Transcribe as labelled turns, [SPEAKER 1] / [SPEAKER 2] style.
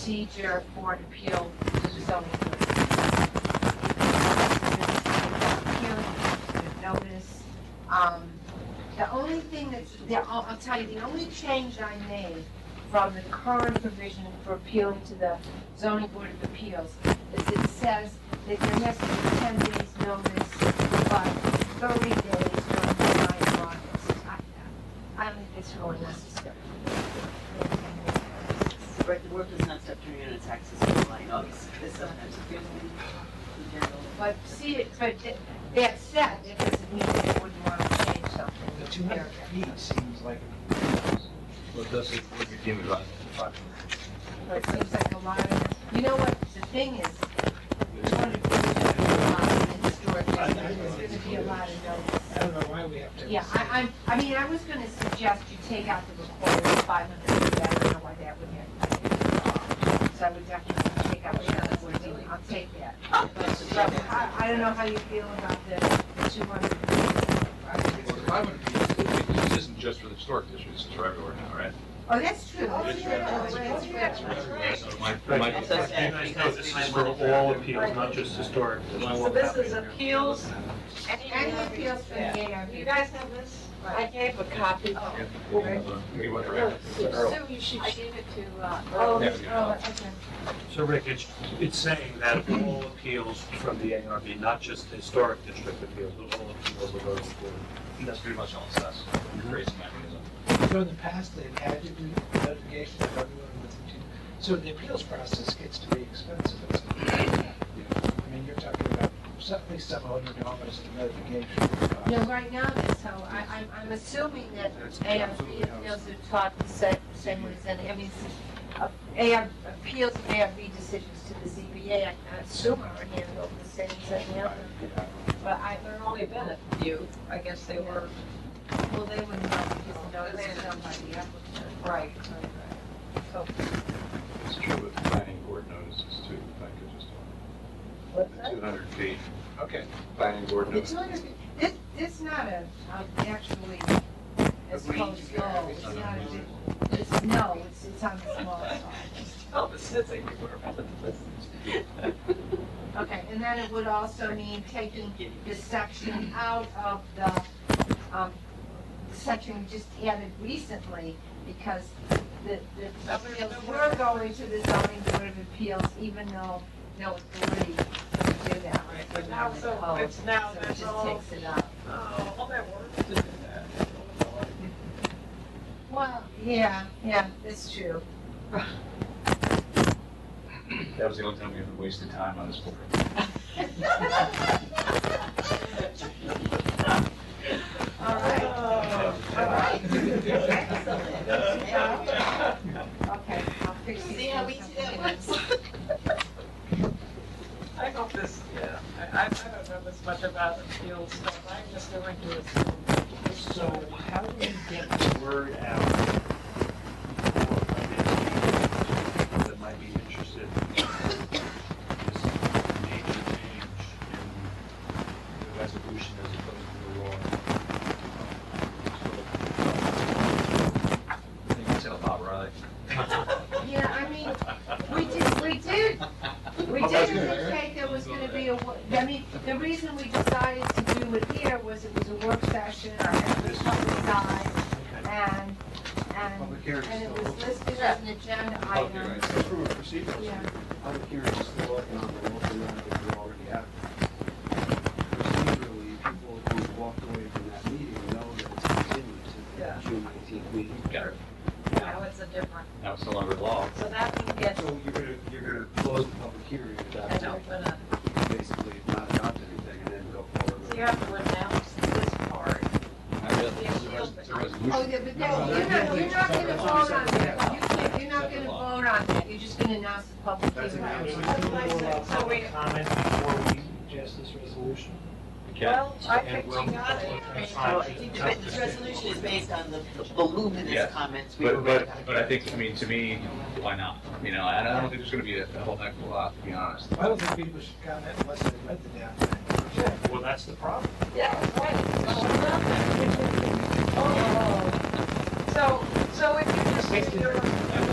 [SPEAKER 1] procedure for an appeal to zoning board. Hearing, notice. Um, The only thing that's, the- I'll I'll tell you, the only change I made from the current provision for appealing to the zoning board of appeals is it says that there has to be ten days notice, but thirty days from the time of office. I- I don't think it's really necessary.
[SPEAKER 2] Right, the work does not stop turning on its axis in July and August, because sometimes Oh, it feels in general.
[SPEAKER 1] But see, it- but th- that said, it doesn't mean they wouldn't want to change something.
[SPEAKER 3] The two hundred feet seems like.
[SPEAKER 4] Well, does it, would you deem it right?
[SPEAKER 1] But it seems like a lot of, you know what, the thing is, two hundred feet is gonna be a lot in historic district, there's gonna be a lot of notice.
[SPEAKER 3] I don't know why we have to.
[SPEAKER 1] Yeah, I, I'm, I mean, I was gonna suggest you take out the required five hundred feet, I don't know why that would have. So I would definitely take out the other fourteen, I'll take that. So I, I don't know how you feel about the two hundred feet.
[SPEAKER 5] Well, the five hundred feet, this isn't just for the historic district, this is for everywhere now, right?
[SPEAKER 1] Oh, that's true.
[SPEAKER 5] Oh, yeah.
[SPEAKER 1] That's true. That's true.
[SPEAKER 5] So it might- it might
[SPEAKER 6] Right,
[SPEAKER 5] be-
[SPEAKER 6] so you guys know this is for all appeals, not just historic.
[SPEAKER 7] So this is appeals,
[SPEAKER 1] Any appeals from the ARB?
[SPEAKER 7] you guys have this? I gave a copy.
[SPEAKER 5] We went around.
[SPEAKER 7] Sue, you should. I gave it to, uh. Oh,
[SPEAKER 5] There we go.
[SPEAKER 6] So Rick, it's, it's saying that all appeals from the ARB, not just the historic district appeals, but all appeals of those.
[SPEAKER 5] And That's pretty much all it says,
[SPEAKER 4] Mm-hmm.
[SPEAKER 5] creates a mechanism.
[SPEAKER 3] So in the past, they've had to do notification of everyone within two, so the appeals process gets to be expensive. It's- I mean, you're talking about some- at least seven hundred dollars in
[SPEAKER 1] No,
[SPEAKER 3] notification.
[SPEAKER 1] right now, so I, I'm, I'm assuming that ARB appeals are taught the same, same way as any, I mean, s- uh, AR, appeals of ARB decisions to the ZBA, I I assume are handled the same as any other. But I,
[SPEAKER 7] They're only been a few, I guess they were,
[SPEAKER 1] well, they wouldn't know because notice is done by the applicant.
[SPEAKER 7] right.
[SPEAKER 4] It's true with planning board notices too, if I could just. The two hundred feet,
[SPEAKER 3] Okay,
[SPEAKER 4] planning board
[SPEAKER 1] The two
[SPEAKER 4] notice.
[SPEAKER 1] hundred, this, this is not a, um, actually, as close as, no, it's not a, big- it's, no, it's, it's on the small side.
[SPEAKER 2] Oh, this is everywhere.
[SPEAKER 1] Okay, and then it would also mean taking this section out of the, um, section we just added recently, because the, the appeals were going to the zoning board of appeals, even though no authority to do that. Oh,
[SPEAKER 7] Right, but now, so it's now,
[SPEAKER 1] So it
[SPEAKER 7] there's
[SPEAKER 1] just
[SPEAKER 7] all,
[SPEAKER 1] takes it out.
[SPEAKER 7] oh, all that work to do that.
[SPEAKER 1] Well, yeah, yeah, that's true.
[SPEAKER 5] That was the only time we ever wasted time on this board.
[SPEAKER 1] All right, all right. Okay, I'll fix these
[SPEAKER 2] See how
[SPEAKER 1] things
[SPEAKER 2] easy that
[SPEAKER 1] up.
[SPEAKER 2] was?
[SPEAKER 7] I hope this, yeah, I, I I don't know this much about appeals stuff, I'm just going to assume.
[SPEAKER 3] so how do we get
[SPEAKER 6] The word out. for That might be interested. This Major change in the resolution as opposed to the law.
[SPEAKER 5] I think it's about right.
[SPEAKER 1] Yeah, I mean, we did, we did, we did indicate there was gonna be a, wo- I mean, the reason we decided to do it here was it was a work session, and it was publicized, and, and,
[SPEAKER 3] public hearings?
[SPEAKER 1] and it was listed as an agenda item.
[SPEAKER 8] So From a procedural
[SPEAKER 1] Yeah.
[SPEAKER 8] standpoint, public hearings is still working on the local law that we already have. Procedurally, people who walked away from that meeting know that it's continued to
[SPEAKER 7] Yeah.
[SPEAKER 8] the June nineteenth meeting.
[SPEAKER 5] Got it.
[SPEAKER 7] Now it's a different,
[SPEAKER 5] Now it's no longer law.
[SPEAKER 7] so that we can get,
[SPEAKER 8] So you're gonna, you're gonna close the public hearing at that
[SPEAKER 7] and
[SPEAKER 8] point,
[SPEAKER 7] open up.
[SPEAKER 8] basically not adopt anything and then go forward.
[SPEAKER 7] So
[SPEAKER 8] with
[SPEAKER 7] you
[SPEAKER 8] it.
[SPEAKER 7] have to announce this part.
[SPEAKER 5] I read It's a res- it's a
[SPEAKER 1] Oh,
[SPEAKER 5] resolution.
[SPEAKER 1] yeah, but that, you're not, you're not gonna vote on that, you can't, you're not gonna vote on that, you're just gonna announce the public
[SPEAKER 8] That's
[SPEAKER 1] hearing.
[SPEAKER 8] announced.
[SPEAKER 7] So we-
[SPEAKER 3] Comment before we suggest this resolution?
[SPEAKER 5] Yeah.
[SPEAKER 7] Well, I
[SPEAKER 6] And
[SPEAKER 7] think
[SPEAKER 6] we'll-
[SPEAKER 7] she got it.
[SPEAKER 2] So Oh, I think the- This resolution is based on the the voluminous
[SPEAKER 5] Yes.
[SPEAKER 2] comments we were.
[SPEAKER 5] But, but, but I think, I mean, to me, why not? You know, I don't I don't think there's gonna be a a whole heck of a lot, to be honest.
[SPEAKER 3] I don't think people should comment unless they read the damn thing.
[SPEAKER 6] Well, that's the problem.
[SPEAKER 7] Yeah, right. Oh, So, so if you just, if you're,